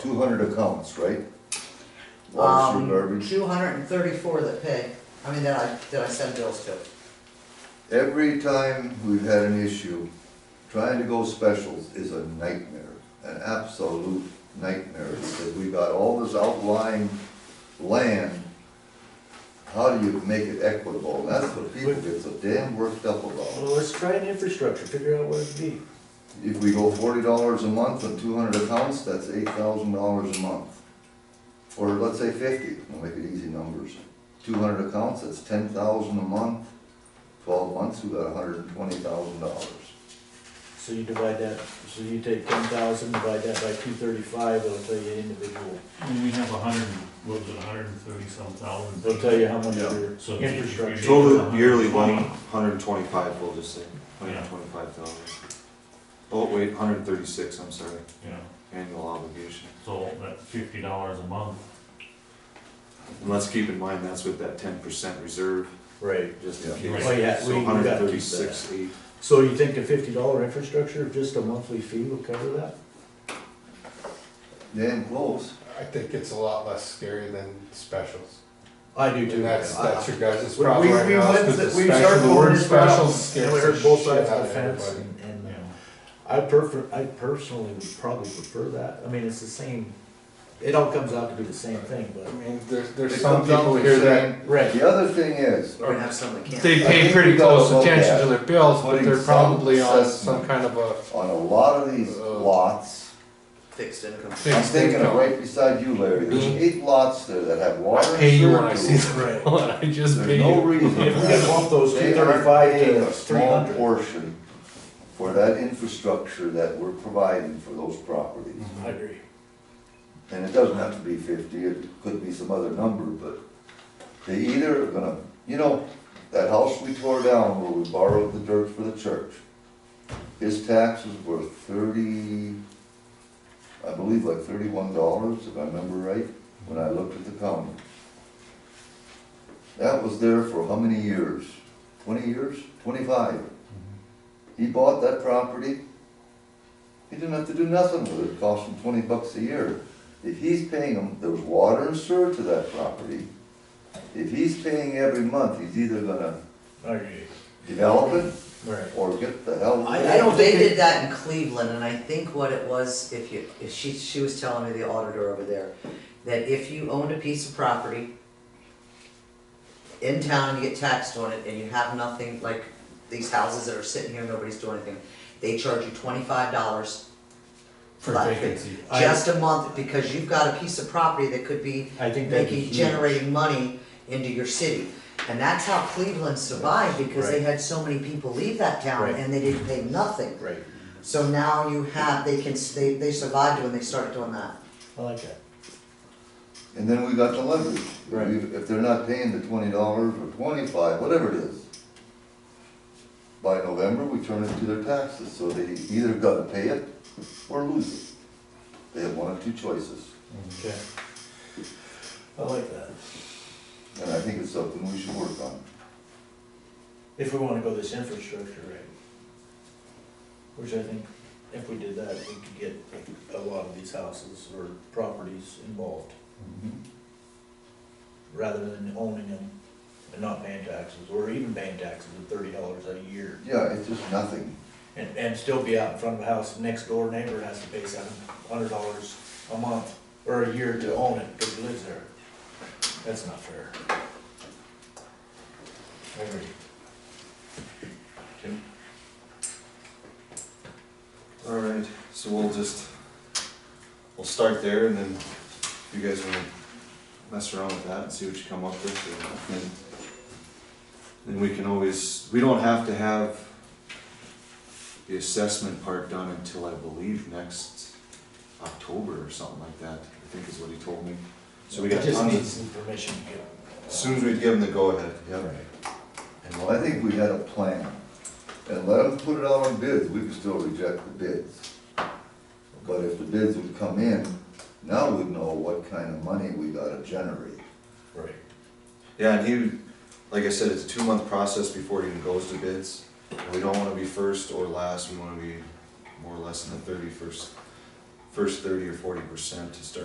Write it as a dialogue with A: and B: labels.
A: Two hundred accounts, right? Water, sewer, garbage.
B: Um, Two hundred and thirty-four that pay, I mean, that I, that I send bills to.
A: Every time we've had an issue, trying to go specials is a nightmare, an absolute nightmare, because we got all this outlying land. How do you make it equitable? That's what people get so damn worked up
C: Well,
A: about.
C: let's try an infrastructure, figure out what it'd be.
A: If we go forty dollars a month and two hundred accounts, that's eight thousand dollars a month. Or let's say fifty, we'll make it easy numbers. Two hundred accounts, that's ten thousand a month. Twelve months, we got hundred and twenty thousand dollars.
C: So you divide that, so you take ten thousand, divide that by two thirty-five, it'll tell you individual,
D: And we have a hundred, what was it, a hundred and thirty some thousand?
C: it'll tell you how much
A: Yeah.
C: your
D: So
C: infrastructure.
E: Total yearly one, hundred and twenty-five, we'll just say, hundred and twenty-five thousand. Oh, wait, hundred and thirty-six, I'm sorry,
D: Yeah,
E: annual obligation.
D: so that fifty dollars a month,
E: And let's keep in mind, that's with that ten percent reserve,
C: Right.
E: just in
D: Yeah.
E: case.
C: Oh, yeah, we-
E: So
C: we gotta keep
E: hundred
C: that.
E: and thirty-six, eight.
C: So you think a fifty dollar infrastructure, of just a monthly fee will cover that?
A: Damn close.
F: I think it's a lot less scary than specials.
C: I do too.
F: And that's, that's your guys'
C: We-
F: problem
C: we-
F: right
C: we
F: now,
C: went-
F: is 'cause the
C: we
F: special-
C: started
F: the word
C: going this route,
F: specials
C: And we
F: scares
C: heard
F: the
C: both
F: shit
C: sides of
F: out
C: the
F: of
C: fence,
F: everybody.
C: and, and uh,
D: you know,
C: I prefer, I personally would probably prefer that, I mean, it's the same, it all comes out to be the same thing,
F: I
C: but.
F: mean, there's, there's
A: It
F: some
A: comes out
F: people
A: with
F: here
A: saying-
F: that,
C: Right.
A: The other thing is,
B: We're gonna have some that can't.
F: they
A: I think
F: pay
A: we
F: pretty
A: gotta
F: close
A: look
F: attention
A: at
F: to their bills, but
A: putting
F: they're
A: some
F: probably on some
A: assessment.
F: kind of a
A: on a lot of these
F: Uh,
A: lots,
B: Fixed income.
A: I'm
F: fixed
A: thinking of
F: income.
A: right beside you, Larry, there's
F: Mhm.
A: eight lots there that have
F: I
A: water and
F: pay you
A: sewer
F: when I
A: to
F: see
A: it.
F: the
C: Right.
F: bill, and I just
A: There's
F: pay
A: no
F: you.
A: reason.
C: If we could bump those
A: They are
C: 235 to
A: paying a small
C: 300.
A: Portion for that infrastructure that we're providing for those properties.
C: I agree.
A: And it doesn't have to be fifty, it could be some other number, but they either are gonna, you know, that house we tore down where we borrowed the dirt for the church, his taxes were thirty, I believe like thirty-one dollars, if I remember right, when I looked at the county. That was there for how many years? Twenty years? Twenty-five? He bought that property, he didn't have to do nothing with it, it cost him twenty bucks a year. If he's paying them, there's water and sewer to that property. If he's paying every month, he's either gonna
C: I agree.
A: develop it
C: Right.
A: or get the hell.
B: Um, I, I don't, they did that in Cleveland, and I think what it was, if you, if she, she was telling me, the auditor over there, that if you owned a piece of property in town, you get taxed on it, and you have nothing, like these houses that are sitting here, nobody's doing anything, they charge you twenty-five dollars for
F: For
B: that
F: vacancy.
B: fee. Just a month, because you've got a piece of property that could be
C: I think that'd be
B: making,
C: huge.
B: generating money into your city. And that's how Cleveland survived, because they had so many people leave that town
C: Right.
B: and they didn't pay nothing.
C: Right.
B: So now you have, they can, they, they survived when they started doing that.
C: I like that.
A: And then we got the leverage. If we-
C: Right.
A: If they're not paying the twenty dollars or twenty-five, whatever it is, by November, we turn it to their taxes, so they either gotta pay it or lose it. They have one of two choices,
C: Okay. I like that.
A: and I think it's something we should work on.
C: If we wanna go this infrastructure right, Which I think, if we did that, we could get a lot of these houses or properties involved, rather than owning them and not paying taxes, or even paying taxes at thirty dollars a year.
A: Yeah, it's just nothing.
C: And, and still be out in front of a house, next door neighbor has to pay seven hundred dollars a month or a year to own it, cause he lives there. That's not fair. I agree.
E: All right, so we'll just, we'll start there and then if you guys wanna mess around with that and see what you come up with. and then- Then we can always, we don't have to have the assessment part done until I believe next October or something like that, I think is what he told me. So we got
C: Just
E: tons
C: needs
E: of,
C: some permission to get.
E: as soon as we give him the go-ahead, yeah.
C: Right.
A: Well, I think we had a plan, and let them put it out on bids, we could still reject the bids. But if the bids would come in, now we'd know what kind of money we gotta generate.
C: Right.
E: Yeah, and he, like I said, it's a two-month process before it even goes to bids. We don't wanna be first or last, we wanna be more or less in the thirty-first, first thirty or forty percent to start